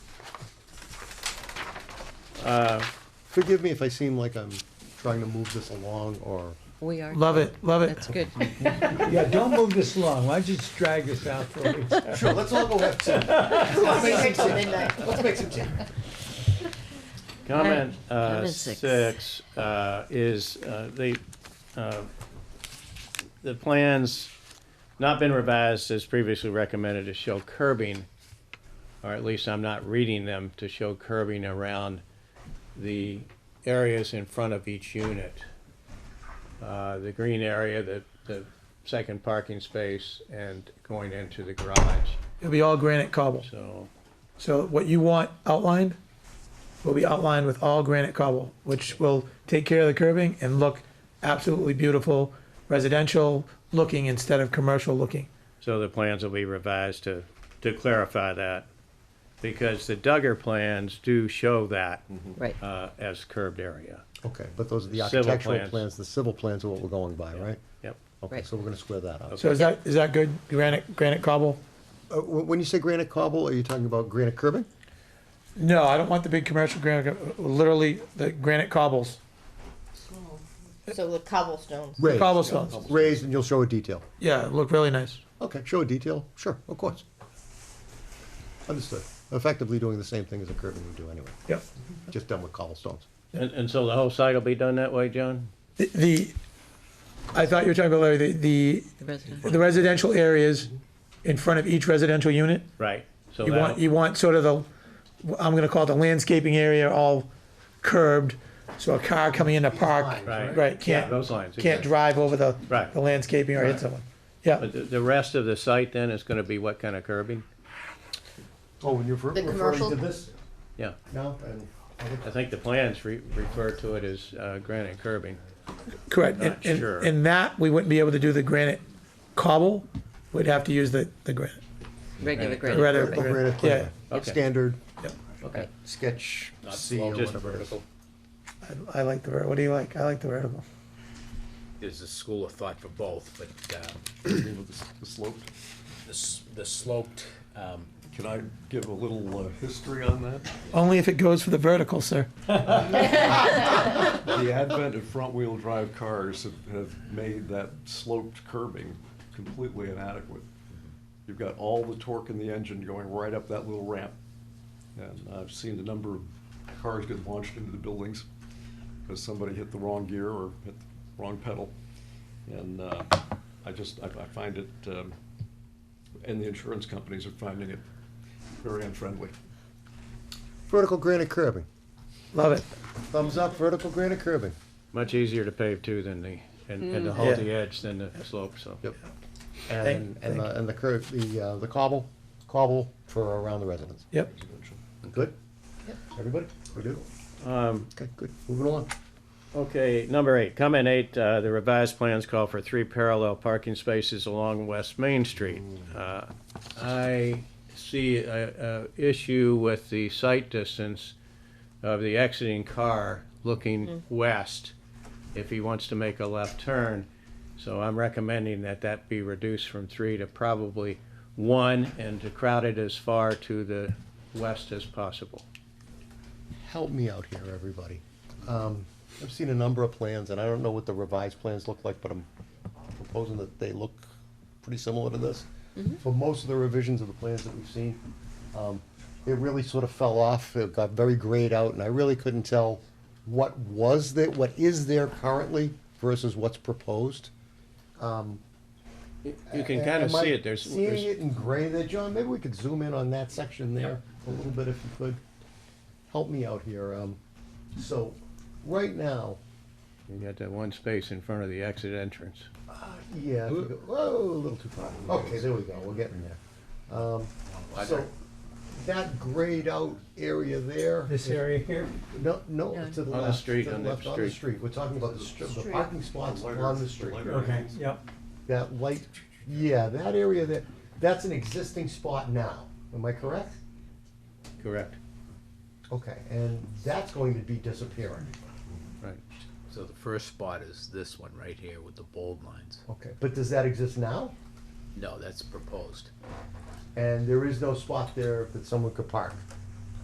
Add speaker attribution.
Speaker 1: Uh, Forgive me if I seem like I'm trying to move this along or,
Speaker 2: We are.
Speaker 3: Love it, love it.
Speaker 2: That's good.
Speaker 4: Yeah, don't move this long. Why don't you just drag this out for a week?
Speaker 1: sure, let's all go have tea. Let's make some tea.
Speaker 5: Comment
Speaker 2: Right.
Speaker 5: uh,
Speaker 2: Comment six.
Speaker 5: six uh, is, uh, the, uh, the plans not been revised as previously recommended to show curbing, or at least I'm not reading them, to show curbing around the areas in front of each unit. Uh, The green area, the, the second parking space, and going into the garage,
Speaker 3: It'll be all granite cobble.
Speaker 5: so.
Speaker 3: So what you want outlined will be outlined with all granite cobble, which will take care of the curbing and look absolutely beautiful, residential looking instead of commercial looking.
Speaker 5: So the plans will be revised to, to clarify that, because the Duggar plans do show that
Speaker 2: Right.
Speaker 5: uh, as curbed area.
Speaker 1: Okay, but those are the
Speaker 5: Civil
Speaker 1: architectural
Speaker 5: plans.
Speaker 1: plans, the civil plans are what we're going by, right?
Speaker 5: Yep.
Speaker 1: Okay,
Speaker 2: Right.
Speaker 1: so we're gonna square that up.
Speaker 3: So is that, is that good? Granite, granite cobble?
Speaker 1: Uh, wh- When you say granite cobble, are you talking about granite curbing?
Speaker 3: No, I don't want the big commercial granite, literally the granite cobbles,
Speaker 6: So the cobblestones.
Speaker 1: Raised.
Speaker 3: cobblestones.
Speaker 1: Raised, and you'll show a detail.
Speaker 3: Yeah, look really nice.
Speaker 1: Okay, show a detail, sure, of course. Understood. Effectively doing the same thing as a curbing would do anyway,
Speaker 3: Yep.
Speaker 1: just done with cobblestones.
Speaker 5: And, and so the whole site will be done that way, John?
Speaker 3: The- The, I thought you were talking about Larry, the,
Speaker 2: The resident.
Speaker 3: the, the residential areas in front of each residential unit?
Speaker 5: Right. So
Speaker 3: You want,
Speaker 5: that,
Speaker 3: you want sort of the, I'm gonna call it the landscaping area, all curbed, so a car coming in to park,
Speaker 5: Right.
Speaker 3: right,
Speaker 5: Yeah,
Speaker 3: can't,
Speaker 5: those lines,
Speaker 3: can't
Speaker 5: exactly.
Speaker 3: drive over the,
Speaker 5: Right.
Speaker 3: the landscaping or hit someone. Yeah,
Speaker 5: but the, the rest of the site then is gonna be what kind of curbing?
Speaker 1: Oh, when you're
Speaker 6: The commercial-
Speaker 1: this
Speaker 5: Yeah,
Speaker 1: now, and I think
Speaker 5: I think the plans re- refer to it as uh, granite curbing.
Speaker 3: correct, and,
Speaker 5: Not
Speaker 3: and,
Speaker 5: sure.
Speaker 3: and that, we wouldn't be able to do the granite cobble, we'd have to use the, the granite.
Speaker 2: Regular
Speaker 5: Right.
Speaker 2: grid.
Speaker 3: Rather-
Speaker 1: the granite
Speaker 3: Yeah,
Speaker 1: plan,
Speaker 5: Okay.
Speaker 1: standard
Speaker 5: Okay.
Speaker 1: sketch
Speaker 5: Not-
Speaker 1: C
Speaker 5: well,
Speaker 1: or
Speaker 5: just
Speaker 1: whatever it is.
Speaker 5: vertical.
Speaker 3: I, I like the, ver- what do you like? I like the vertical.
Speaker 7: there's a school of thought for both, but um,
Speaker 8: The slope.
Speaker 7: the s- the sloped, um,
Speaker 8: Can I give a little uh, history on that?
Speaker 3: Only if it goes for the vertical, sir.
Speaker 8: The advent of front-wheel drive cars have, have made that sloped curbing completely inadequate. You've got all the torque in the engine going right up that little ramp. And I've seen a number of cars get launched into the buildings because somebody hit the wrong gear or hit the wrong pedal. And uh, I just, I, I find it, um, and the insurance companies are finding it very unfriendly.
Speaker 1: Vertical granite curbing.
Speaker 3: Love it.
Speaker 1: Thumbs up, vertical granite curbing.
Speaker 5: Much easier to pave too than the, and, and to hold
Speaker 3: Yeah.
Speaker 5: the edge than the slope, so.
Speaker 1: Yep.
Speaker 3: Thank-
Speaker 1: And, and the, and the curb, the, uh, the cobble, cobble for around the residence.
Speaker 3: Yep,
Speaker 1: Good? Everybody? We good?
Speaker 3: Um,
Speaker 1: Okay, good. Moving along.
Speaker 5: Okay, number eight, comment eight, uh, the revised plans call for three parallel parking spaces along West Main Street. Uh, I see a, a issue with the sight distance of the exiting car looking west if he wants to make a left turn. So I'm recommending that that be reduced from three to probably one and to crowd it as far to the west as possible.
Speaker 1: Help me out here, everybody. Um, I've seen a number of plans, and I don't know what the revised plans look like, but I'm proposing that they look pretty similar to this.
Speaker 3: Mm-hmm.
Speaker 1: For most of the revisions of the plans that we've seen, um, it really sort of fell off, it got very grayed out, and I really couldn't tell what was there, what is there currently versus what's proposed.
Speaker 5: You can kind of
Speaker 1: Am I
Speaker 5: see it, there's. there's-
Speaker 1: Seeing it in gray there, John, maybe we could zoom in on that section there a little bit if you could. Help me out here, um, so, right now,
Speaker 5: You got that one space in front of the exit entrance.
Speaker 1: yeah, if you go- whoa, a little too far. Okay, there we go, we're getting there.
Speaker 5: Oh,
Speaker 1: Um, so, that grayed out area there.
Speaker 4: This area here?
Speaker 1: No, no,
Speaker 2: No.
Speaker 1: to the
Speaker 5: On the
Speaker 1: left,
Speaker 5: street,
Speaker 1: to the
Speaker 5: on the
Speaker 1: left, on the
Speaker 5: street.
Speaker 1: street, we're talking about the str- the
Speaker 6: Street.
Speaker 1: parking spots on the street.
Speaker 4: Okay, yep.
Speaker 1: That light, yeah, that area there, that's an existing spot now, am I correct?
Speaker 5: Correct,
Speaker 1: Okay, and that's going to be disappearing.
Speaker 5: right.
Speaker 7: so the first spot is this one right here with the bold lines.
Speaker 1: Okay. But does that exist now?
Speaker 7: No, that's proposed.
Speaker 1: And there is no spot there that someone could park.